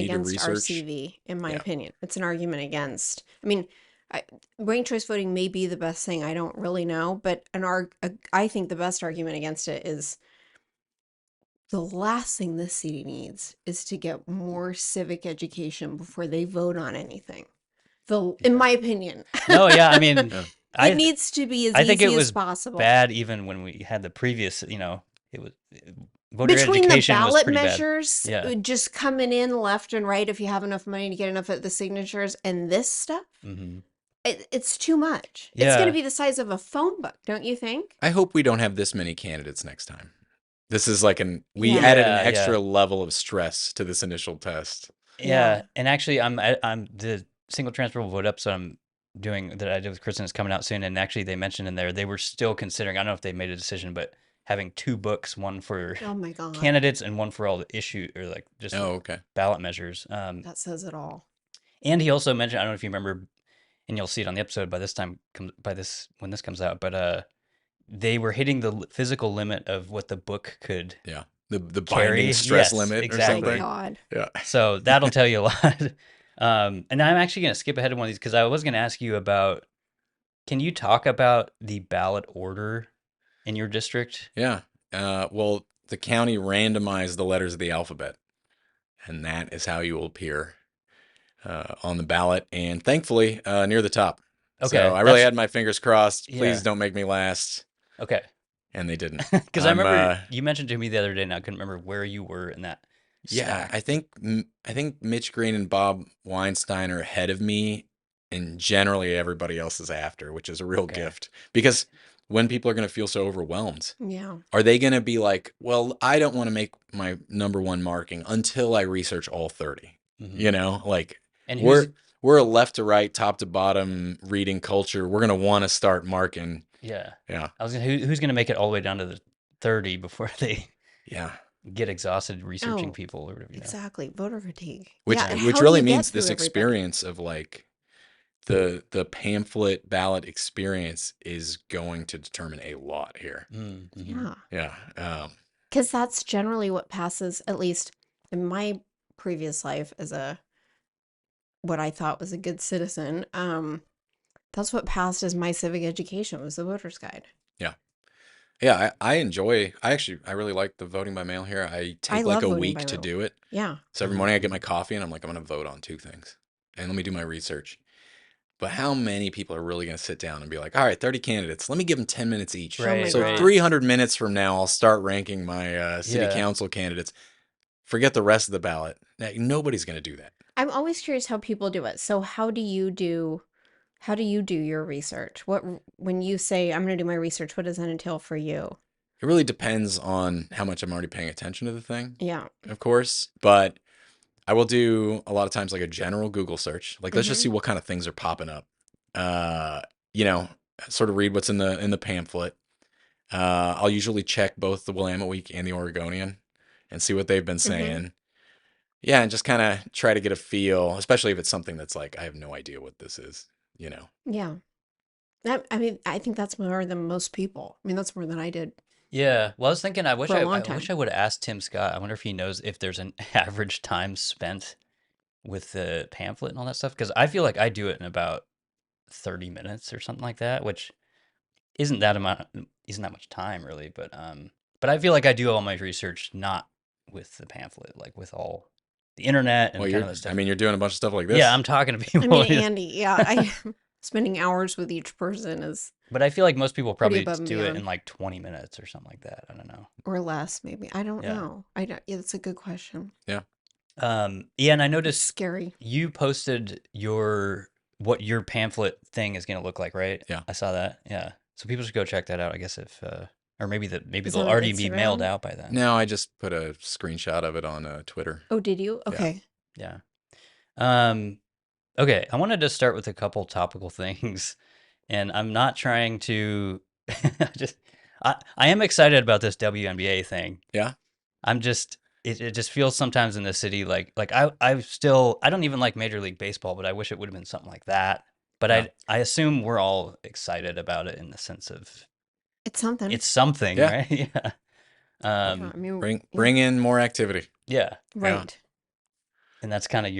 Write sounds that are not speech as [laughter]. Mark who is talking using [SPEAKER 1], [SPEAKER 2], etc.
[SPEAKER 1] need to
[SPEAKER 2] against
[SPEAKER 1] research.
[SPEAKER 2] RCV, in my
[SPEAKER 1] Yeah.
[SPEAKER 2] opinion. It's an argument against. I mean, I, ranked choice voting may be the best thing. I don't really know, but an arg. a- I think the best argument against it is the last thing this city needs is to get more civic education before they vote on anything. The, in my opinion,
[SPEAKER 3] No, yeah, I mean,
[SPEAKER 1] [laughs] Yeah.
[SPEAKER 3] I
[SPEAKER 2] it needs to be as
[SPEAKER 3] I
[SPEAKER 2] easy
[SPEAKER 3] think it
[SPEAKER 2] as
[SPEAKER 3] was
[SPEAKER 2] possible.
[SPEAKER 3] bad even when we had the previous, you know, it was voter
[SPEAKER 2] Between the
[SPEAKER 3] education was
[SPEAKER 2] ballot
[SPEAKER 3] pretty bad.
[SPEAKER 2] measures,
[SPEAKER 3] Yeah.
[SPEAKER 2] uh, just coming in left and right if you have enough money to get enough of the signatures, and this stuff,
[SPEAKER 1] Mm-hmm.
[SPEAKER 3] Mhm.
[SPEAKER 2] it, it's too much. It's going
[SPEAKER 3] Yeah.
[SPEAKER 2] to be the size of a phone book, don't you think?
[SPEAKER 1] I hope we don't have this many candidates next time. This is like an we
[SPEAKER 2] Yeah.
[SPEAKER 1] added
[SPEAKER 3] Yeah,
[SPEAKER 1] an
[SPEAKER 3] yeah.
[SPEAKER 1] extra level of stress to this initial test.
[SPEAKER 3] Yeah.
[SPEAKER 2] Yeah.
[SPEAKER 3] and actually, I'm I, I'm the single transferable vote ups I'm doing that I did with Kristen is coming out soon, and actually they mentioned in there they were still considering. I don't know if they made a decision, but having two books, one for
[SPEAKER 2] Oh my God.
[SPEAKER 3] candidates and one for all the issue or like just
[SPEAKER 1] Oh, okay.
[SPEAKER 3] ballot measures. Um,
[SPEAKER 2] that says it all.
[SPEAKER 3] and he also mentioned I don't know if you remember, and you'll see it on the episode by this time comes by this when this comes out, but uh, they were hitting the li- physical limit of what the book could
[SPEAKER 1] The the
[SPEAKER 3] Carry,
[SPEAKER 1] binding stress
[SPEAKER 3] yes,
[SPEAKER 1] limit or
[SPEAKER 3] exactly.
[SPEAKER 2] Oh My
[SPEAKER 1] something.
[SPEAKER 2] God.
[SPEAKER 1] Yeah.
[SPEAKER 3] So that'll tell you a [laughs] lot. Um, and I'm actually going to skip ahead of one of these because I was going to ask you about can you talk about the ballot order in your district?
[SPEAKER 1] Yeah. Uh, well, the county randomized the letters of the alphabet, and that is how you will appear uh, on the ballot. And thankfully, uh, near the top.
[SPEAKER 3] Okay.
[SPEAKER 1] So I really
[SPEAKER 3] that's-
[SPEAKER 1] had my fingers crossed. Please
[SPEAKER 3] Yeah.
[SPEAKER 1] don't make me last.
[SPEAKER 3] Okay. [laughs]
[SPEAKER 1] And they didn't.
[SPEAKER 3] Because I
[SPEAKER 1] I'm,
[SPEAKER 3] remember
[SPEAKER 1] uh,
[SPEAKER 3] you mentioned to me the other day and I couldn't remember where you were in that.
[SPEAKER 1] Yeah,
[SPEAKER 3] stack.
[SPEAKER 1] I think m- I think Mitch Green and Bob Weinstein are ahead of me, and generally everybody else is after, which is a real
[SPEAKER 3] Okay.
[SPEAKER 1] gift because when people are going to feel so overwhelmed,
[SPEAKER 2] Yeah.
[SPEAKER 1] are they going to be like, "Well, I don't want to make my number one marking until I research all 30."
[SPEAKER 3] Mhm.
[SPEAKER 1] You know, like
[SPEAKER 3] And
[SPEAKER 1] we're
[SPEAKER 3] who's,
[SPEAKER 1] we're a left to right, top to bottom reading culture. We're going to want to start marking.
[SPEAKER 3] yeah.
[SPEAKER 1] Yeah.
[SPEAKER 3] I was gonna, who, who's going to make it all the way down to the 30 before [laughs] they
[SPEAKER 1] Yeah.
[SPEAKER 3] get exhausted researching
[SPEAKER 2] Oh,
[SPEAKER 3] people or whatever? You know?
[SPEAKER 2] Exactly. Voter fatigue.
[SPEAKER 1] which
[SPEAKER 2] Yeah, and
[SPEAKER 1] which
[SPEAKER 2] how do
[SPEAKER 1] really
[SPEAKER 2] you get
[SPEAKER 1] means this
[SPEAKER 2] through everybody?
[SPEAKER 1] experience of like the the pamphlet ballot experience is going to determine a lot here
[SPEAKER 3] Mm, mhm.
[SPEAKER 2] Yeah.
[SPEAKER 1] yeah um
[SPEAKER 2] Because that's generally what passes, at least in my previous life as a what I thought was a good citizen. Um, that's what passed as my civic education was the voter's guide.
[SPEAKER 1] yeah i, I enjoy i actually i really like the voting by mail here i take
[SPEAKER 2] love
[SPEAKER 1] like a
[SPEAKER 2] voting
[SPEAKER 1] week
[SPEAKER 2] by
[SPEAKER 1] to
[SPEAKER 2] mail. Mm-hmm.
[SPEAKER 1] do it
[SPEAKER 2] Yeah.
[SPEAKER 1] so every morning i get my coffee and i'm like i'm going to vote on two things and let me do my research but how many people are really going to sit down and be like all right 30 candidates let me give them 10 minutes each
[SPEAKER 2] Oh my
[SPEAKER 3] Right,
[SPEAKER 1] So
[SPEAKER 3] right.
[SPEAKER 1] 300 minutes from now, I'll start ranking my uh, city
[SPEAKER 3] Yeah.
[SPEAKER 1] council candidates. Forget the rest of the ballot. Like, Nobody's going to do that.
[SPEAKER 2] I'm always curious how people do it. So how do you do how do you do your research? What when you say I'm going to do my research, what does that entail for you?
[SPEAKER 1] It really depends on how much I'm already paying attention to the thing,
[SPEAKER 2] Yeah.
[SPEAKER 1] of course. But I will do a lot of times like a general Google search. Like, let's just
[SPEAKER 3] Mm-hmm.
[SPEAKER 2] Mhm.
[SPEAKER 1] see what kind of things are popping up. Uh, you know, sort of read what's in the in the pamphlet. Uh, I'll usually check both the Willamette Week and the Oregonian and see what they've been
[SPEAKER 3] Mm-hmm.
[SPEAKER 1] saying. Yeah, and just kind of try to get a feel, especially if it's something that's like, I have no idea what this is, you know.
[SPEAKER 2] Yeah. That I mean, I think that's more than most people. I mean, that's more than I
[SPEAKER 3] [laughs]
[SPEAKER 2] did.
[SPEAKER 3] Yeah. Well, I was thinking. I wish
[SPEAKER 2] For a
[SPEAKER 3] I,
[SPEAKER 2] long
[SPEAKER 3] I wish I
[SPEAKER 2] time.
[SPEAKER 3] would have asked Tim Scott. I wonder if he knows if there's an [laughs] average time spent with the pamphlet and all that stuff. Because I feel like I do it in about thirty minutes or something like that, which isn't that amount mm, isn't that much time really. But um, but I feel like I do all my research not with the pamphlet, like with all the internet and
[SPEAKER 1] well,
[SPEAKER 3] kind
[SPEAKER 1] you're,
[SPEAKER 3] of that stuff.
[SPEAKER 1] I mean, you're doing a bunch of stuff like this.
[SPEAKER 3] yeah, I'm talking to [laughs] people.
[SPEAKER 2] I mean, Andy,
[SPEAKER 3] [laughs]
[SPEAKER 2] yeah, I [laughs] spending hours with each person is
[SPEAKER 3] but I feel like most people
[SPEAKER 2] pretty
[SPEAKER 3] probably
[SPEAKER 2] above and
[SPEAKER 3] do it in
[SPEAKER 2] beyond.
[SPEAKER 3] like twenty minutes or something like that. I don't know.
[SPEAKER 2] or less maybe. I don't
[SPEAKER 3] Yeah.
[SPEAKER 2] know. I don't yeah, that's a good question.
[SPEAKER 3] Um, yeah, and I
[SPEAKER 2] It's
[SPEAKER 3] noticed
[SPEAKER 2] scary.
[SPEAKER 3] You posted your what your pamphlet thing is going to look like, right?
[SPEAKER 1] Yeah.
[SPEAKER 3] I saw that. Yeah. So people should go check that out. I guess if uh, or maybe that maybe
[SPEAKER 2] Is that
[SPEAKER 3] they'll
[SPEAKER 2] on
[SPEAKER 3] already be mailed
[SPEAKER 2] Instagram?
[SPEAKER 3] out by then.
[SPEAKER 1] No, I just put a screenshot of it on uh, Twitter.
[SPEAKER 2] Oh, did you? Okay.
[SPEAKER 3] Yeah. Um. Okay. I wanted to start with a couple topical [laughs] things, and I'm not trying to. [laughs] I just I I am excited about this WNBA thing.
[SPEAKER 1] Yeah?
[SPEAKER 3] I'm just. It, it just feels sometimes in the city like like I I still I don't even like Major League Baseball, but I wish it would have been something like that. But
[SPEAKER 1] Yeah.
[SPEAKER 3] I I assume we're all excited about it in the sense of
[SPEAKER 2] It's something.
[SPEAKER 3] it's something,
[SPEAKER 1] Yeah.
[SPEAKER 3] right? [laughs] Yeah.
[SPEAKER 2] Yeah,
[SPEAKER 3] Um.
[SPEAKER 2] I mean,
[SPEAKER 1] Bring bring in more activity.
[SPEAKER 3] Yeah.
[SPEAKER 2] right.
[SPEAKER 3] and that's kind of